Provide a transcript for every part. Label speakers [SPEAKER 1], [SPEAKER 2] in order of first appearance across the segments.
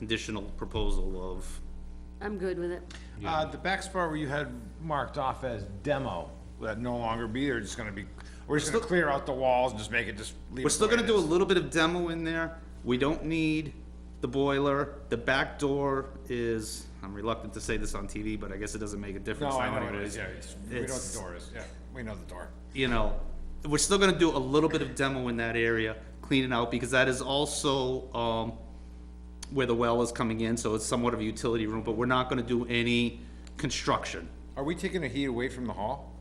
[SPEAKER 1] conditional proposal of,
[SPEAKER 2] I'm good with it.
[SPEAKER 3] Uh, the back spot where you had marked off as demo, will that no longer be, or just gonna be, we're just gonna clear out the walls and just make it just leave it
[SPEAKER 1] we're still
[SPEAKER 3] the way
[SPEAKER 1] gonna
[SPEAKER 3] it
[SPEAKER 1] do a
[SPEAKER 3] is?
[SPEAKER 1] little bit of demo in there. We don't need the boiler. The back door is, I'm reluctant to say this on TV, but I guess it doesn't make a difference
[SPEAKER 3] No, I
[SPEAKER 1] now
[SPEAKER 3] know what it is,
[SPEAKER 1] anyways.
[SPEAKER 3] yeah, it's, we know what
[SPEAKER 1] It's-
[SPEAKER 3] the door is, yeah, we know the door.
[SPEAKER 1] you know, we're still gonna do a little bit of demo in that area, cleaning out, because that is also, um, where the well is coming in, so it's somewhat of a utility room, but we're not gonna do any construction.
[SPEAKER 3] Are we taking the heat away from the hall?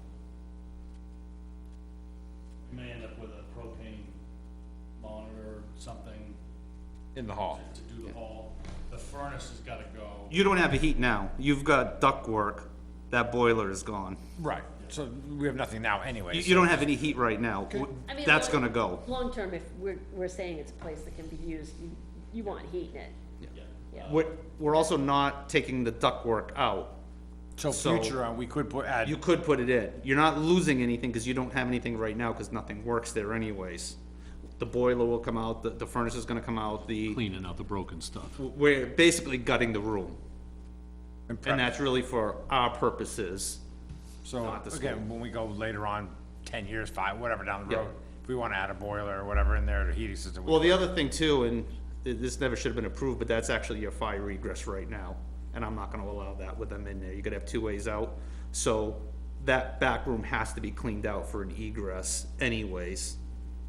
[SPEAKER 4] We may end up with a propane monitor, something
[SPEAKER 3] In the hall?
[SPEAKER 4] to do the hall. The furnace has gotta go.
[SPEAKER 1] You don't have a heat now, you've got ductwork, that boiler is gone.
[SPEAKER 3] Right, so we have nothing now anyway.
[SPEAKER 1] You,
[SPEAKER 3] so-
[SPEAKER 1] you don't have any heat right now,
[SPEAKER 2] I mean,
[SPEAKER 1] that's
[SPEAKER 2] long-
[SPEAKER 1] gonna go.
[SPEAKER 2] Long-term, if we're, we're saying it's a place that can be used, you, you want heat in it.
[SPEAKER 4] Yeah.
[SPEAKER 2] Yeah.
[SPEAKER 1] We're, we're also not taking the ductwork out,
[SPEAKER 3] So
[SPEAKER 1] so-
[SPEAKER 3] future on, we could put, add,
[SPEAKER 1] you could put it in, you're not losing anything, cause you don't have anything right now, cause nothing works there anyways. The boiler will come out, the, the furnace is gonna come out, the
[SPEAKER 5] cleaning out the broken stuff.
[SPEAKER 1] we're basically gutting the room,
[SPEAKER 3] and prep.
[SPEAKER 1] and that's really for our purposes.
[SPEAKER 3] so,
[SPEAKER 1] not this
[SPEAKER 3] again, when we go later on, ten years, five, whatever down the
[SPEAKER 1] Yeah.
[SPEAKER 3] road, if we wanna add a boiler or whatever in there, the heating system. we
[SPEAKER 1] Well, the other thing too, and th- this never should have been approved, but that's actually your fire egress right now, and I'm not gonna allow that with them in there, you could have two ways out. So, that back room has to be cleaned out for an egress anyways,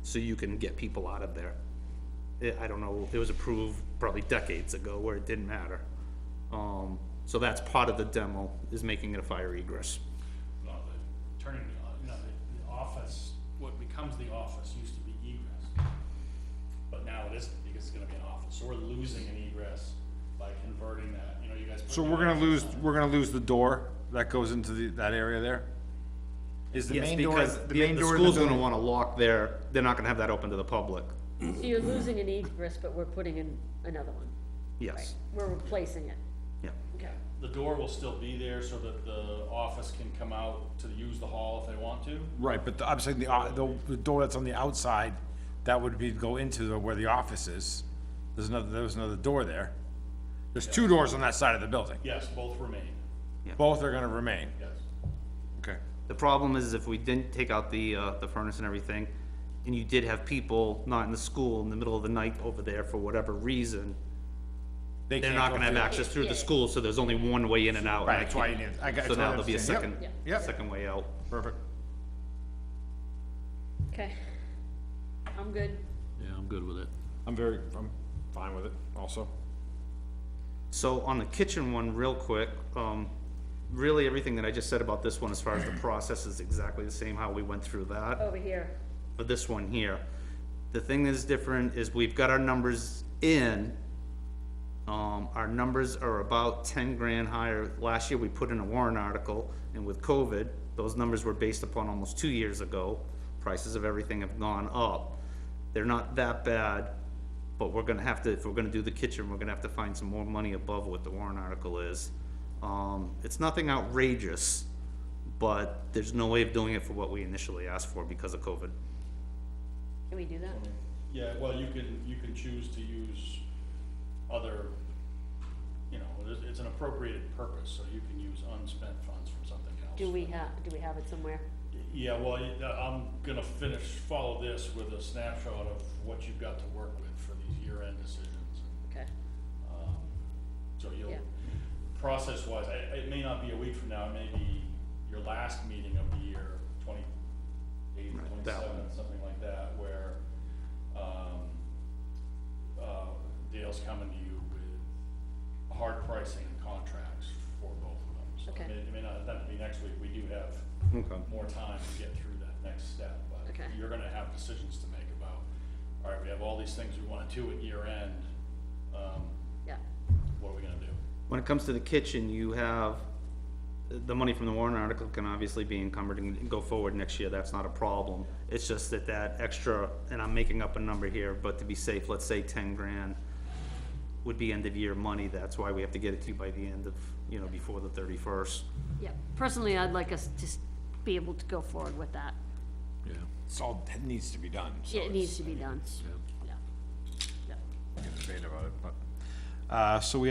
[SPEAKER 1] so you can get people out of there. Eh, I- I don't know, it was approved probably decades ago where it didn't matter. Um, so that's part of the demo, is making it a fire egress.
[SPEAKER 4] No, the, turning, the o- you know, the, the office, what becomes the office used to be egress. But now it isn't, because it's gonna be an office, so we're losing an egress by converting that, you know, you guys. put
[SPEAKER 3] So
[SPEAKER 4] the
[SPEAKER 3] we're gonna
[SPEAKER 4] egress
[SPEAKER 3] lose,
[SPEAKER 4] on.
[SPEAKER 3] we're gonna lose the door that goes into the, that area there? Is the
[SPEAKER 1] Yes,
[SPEAKER 3] main door,
[SPEAKER 1] because
[SPEAKER 3] the
[SPEAKER 1] the,
[SPEAKER 3] main
[SPEAKER 1] the
[SPEAKER 3] door in the
[SPEAKER 1] school's gonna
[SPEAKER 3] building?
[SPEAKER 1] wanna lock there, they're not gonna have that open to the public,
[SPEAKER 2] So you're losing an egress, but we're putting in another one.
[SPEAKER 1] yes,
[SPEAKER 2] We're replacing it.
[SPEAKER 1] yeah.
[SPEAKER 2] Okay.
[SPEAKER 4] The door will still be there so that the office can come out to use the hall if they want to.
[SPEAKER 3] Right, but the- I'm saying the, o- the, the door that's on the outside, that would be, go into the, where the office is. There's another, there's another door there. There's two doors on that side of the building.
[SPEAKER 4] Yes, both remain,
[SPEAKER 3] Both are gonna remain.
[SPEAKER 4] yes.
[SPEAKER 3] Okay.
[SPEAKER 1] The problem is if we didn't take out the, uh, the furnace and everything, and you did have people not in the school in the middle of the night over there for whatever reason, they're not gonna have access through the
[SPEAKER 2] Yeah, yeah.
[SPEAKER 1] school, so there's only one way in and out. and
[SPEAKER 3] Right,
[SPEAKER 1] I
[SPEAKER 3] that's why you
[SPEAKER 1] can't-
[SPEAKER 3] need- I got-
[SPEAKER 1] So
[SPEAKER 3] totally
[SPEAKER 1] now there'll be a
[SPEAKER 3] understand.
[SPEAKER 1] second,
[SPEAKER 3] Yep, yep.
[SPEAKER 1] second way out.
[SPEAKER 3] Perfect.
[SPEAKER 2] Okay. I'm good.
[SPEAKER 5] Yeah, I'm good with it.
[SPEAKER 3] I'm very, I'm fine with it also.
[SPEAKER 1] So on the kitchen one, real quick, um, really everything that I just said about this one as far as the process is exactly the same, how we went through that.
[SPEAKER 2] Over here.
[SPEAKER 1] for this one here. The thing that's different is we've got our numbers in. Um, our numbers are about ten grand higher. Last year, we put in a warrant article, and with COVID, those numbers were based upon almost two years ago. Prices of everything have gone up. They're not that bad, but we're gonna have to, if we're gonna do the kitchen, we're gonna have to find some more money above what the warrant article is. Um, it's nothing outrageous, but there's no way of doing it for what we initially asked for because of COVID.
[SPEAKER 2] Can we do that?
[SPEAKER 4] Yeah, well, you can, you can choose to use other, you know, it's, it's an appropriated purpose, so you can use unspent funds from something else.
[SPEAKER 2] Do we have, do we have it somewhere?
[SPEAKER 4] Yeah, well, you- I'm gonna finish, follow this with a snapshot of what you've got to work with for these year-end decisions.
[SPEAKER 2] Okay.
[SPEAKER 4] Um, So you'll,
[SPEAKER 2] Yeah.
[SPEAKER 4] process-wise, I- it may not be a week from now, it may be your last meeting of the year, twenty-eighth,
[SPEAKER 1] Right, that one.
[SPEAKER 4] twenty-seventh, something like that, where, um, uh, Dale's coming to you with hard pricing and contracts for both of them. So
[SPEAKER 2] Okay.
[SPEAKER 4] it may, it may not, it doesn't be next week, we do have
[SPEAKER 1] Okay.
[SPEAKER 4] more time to get through that next step, but
[SPEAKER 2] Okay.
[SPEAKER 4] you're gonna have decisions to make about, all right, we have all these things we wanna do at year end, um,
[SPEAKER 2] Yeah.
[SPEAKER 4] what are we gonna do?
[SPEAKER 1] When it comes to the kitchen, you have, the money from the warrant article can obviously be encumbered and go forward next year, that's not a problem. It's just that that extra, and I'm making up a number here, but to be safe, let's say ten grand would be end of year money, that's why we have to get it to you by the end of, you know, before the thirty-first.
[SPEAKER 2] Yeah. Personally, I'd like us to s- be able to go forward with that.
[SPEAKER 5] Yeah,
[SPEAKER 3] It's all, it needs to be done, so.
[SPEAKER 2] It needs to be done.
[SPEAKER 5] yeah.
[SPEAKER 2] Yeah. Yeah.
[SPEAKER 3] Get debate about it, but, Uh, so we have